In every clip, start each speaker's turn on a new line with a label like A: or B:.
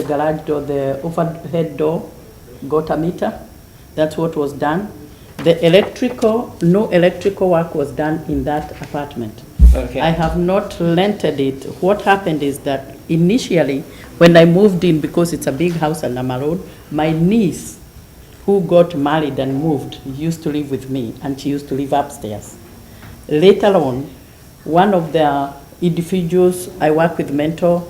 A: The garage door, the overhead door got a meter. That's what was done. The electrical, no electrical work was done in that apartment.
B: Okay.
A: I have not rented it. What happened is that initially, when I moved in, because it's a big house on Nama Road, my niece, who got married and moved, used to live with me, and she used to live upstairs. Later on, one of the individuals I work with, mentor,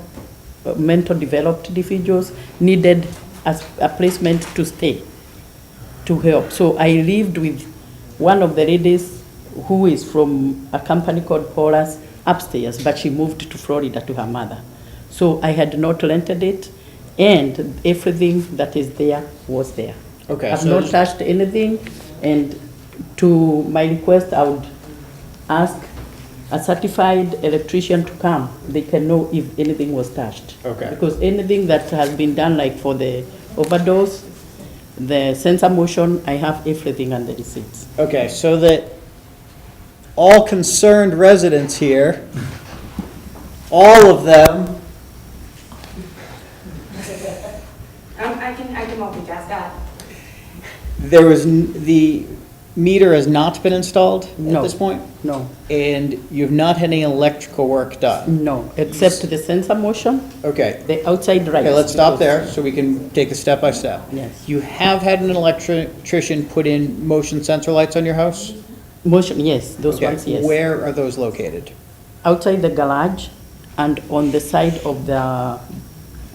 A: uh, mentor developed individuals, needed as a placement to stay to help. So I lived with one of the ladies who is from a company called Paula's upstairs, but she moved to Florida to her mother. So I had not rented it, and everything that is there was there.
B: Okay,
A: I've
B: so-
A: not touched anything, and to my request, I would ask a certified electrician to come. They can know if anything was touched.
B: Okay.
A: Because anything that has been done, like for the overdose, the sensor motion, I have everything and the receipts.
B: Okay, so that all concerned residents here, all of them,
C: Um, I can, I can multitask Uh, that.
B: there was, n- the meter has not been installed at
A: No.
B: this point?
A: No,
B: And you've not had any electrical work done?
A: no, except the sensor motion,
B: Okay,
A: the outside rights.
B: okay, let's
A: because-
B: stop there so we can take it step by step.
A: Yes.
B: You have had an electrician put in motion sensor lights on your house?
A: Motion, yes, those
B: Okay,
A: ones, yes.
B: Where are those located?
A: outside the garage and on the side of the,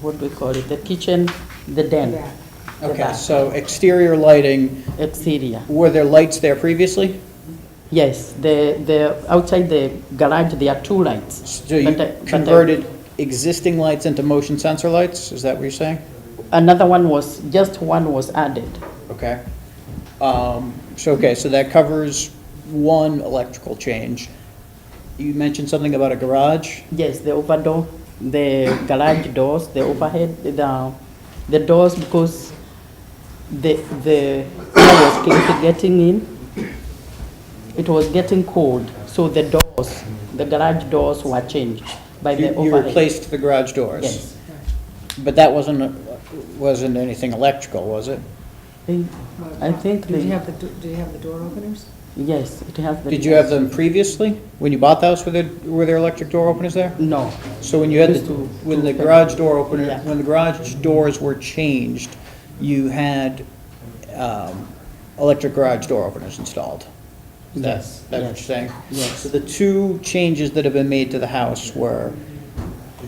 A: what do we call it, the kitchen, the den.
C: Yeah.
A: the
B: Okay,
A: back,
B: so exterior lighting,
A: Exterior,
B: were there lights there previously?
A: yes, the, the, outside the garage, there are two lights.
B: So you
A: But I- but uh, I-
B: converted existing lights into motion sensor lights, is that what you're saying?
A: Another one was, just one was added,
B: Okay. Um, So, okay, so that covers one electrical change. You mentioned something about a garage?
A: yes, the over door, the garage doors, the overhead, the, the doors, because the, the, air was kept getting in, it was getting cold, so the doors, the garage doors were changed by
B: You
A: the
B: you
A: overhead.
B: replaced the garage doors?
A: Yes.
B: But that wasn't, wasn't anything electrical, was it?
A: They- I think
D: Did you
A: they,
D: have the, do- did you have the door openers?
A: yes, it has the.
B: Did you have them previously? When you bought the house, were there, were there electric door openers there?
A: No,
B: So when you had, the
A: Used to-
B: when the
A: to-
B: garage door opener,
A: Yeah.
B: when the garage doors were changed, you had um, electric garage door openers installed? Is that-
A: Yes,
B: That's what you're
A: yes,
B: saying?
A: yes.
B: So the two changes that have been made to the house were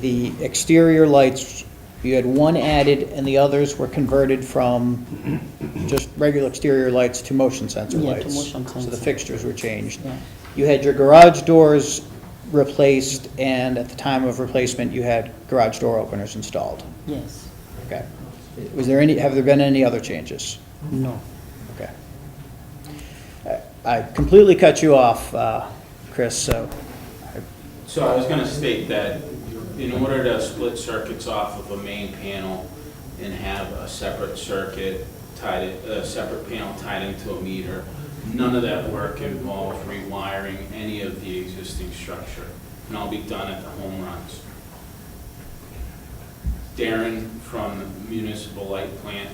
B: the exterior lights, you had one added and the others were converted from just regular exterior lights to motion sensor
A: Yeah, to
B: lights.
A: motion
B: So the
A: sensor.
B: fixtures were changed.
A: Yeah.
B: You had your garage doors replaced, and at the time of replacement, you had garage door openers installed.
A: yes,
B: Okay. Was there any, have there been any other changes?
A: no.
B: Okay. I I completely cut you off, uh, Chris, so,
E: So I was gonna state that in order to split circuits off of a main panel and have a separate circuit tied, a separate panel tied into a meter, none of that work involved rewiring any of the existing structure. And I'll be done at the home runs. Darren from Municipal Light Plant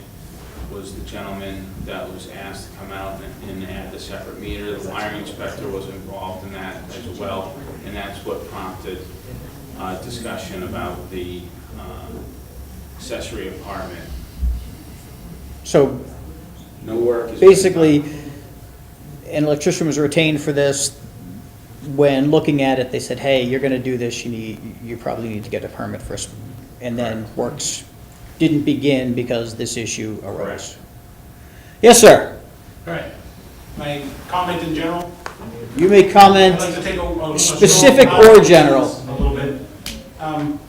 E: was the gentleman that was asked to come out and- and add the separate meter. The wiring inspector was involved in that as well, and that's what prompted uh, discussion about the um, accessory apartment.
B: so
E: No work is.
B: basically, an electrician was retained for this. When looking at it, they said, hey, you're gonna do this, you need, you probably need to get a permit first. And then works didn't begin because this issue arose.
E: Correct.
B: Yes, sir.
F: All right. My comment in general,
B: You may comment.
F: I'd like to take a- a. a stroll
B: Specific
F: around
B: or
F: the
B: general?
F: business A little bit. Um,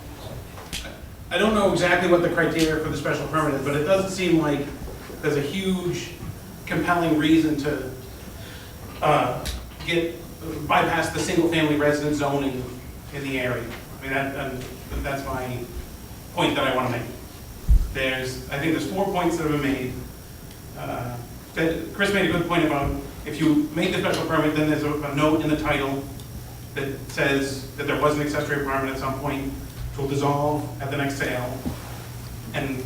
F: I don't know exactly what the criteria for the special permit is, but it doesn't seem like there's a huge compelling reason to uh, get, bypass the single-family residence zoning in the area. I mean, that, that- that's my point that I want to make. There's, I think there's four points that have been made. Uh, That, Chris made a good point about if you make the special permit, then there's a a note in the title that says that there was an accessory apartment at some point, it will dissolve at the next sale. and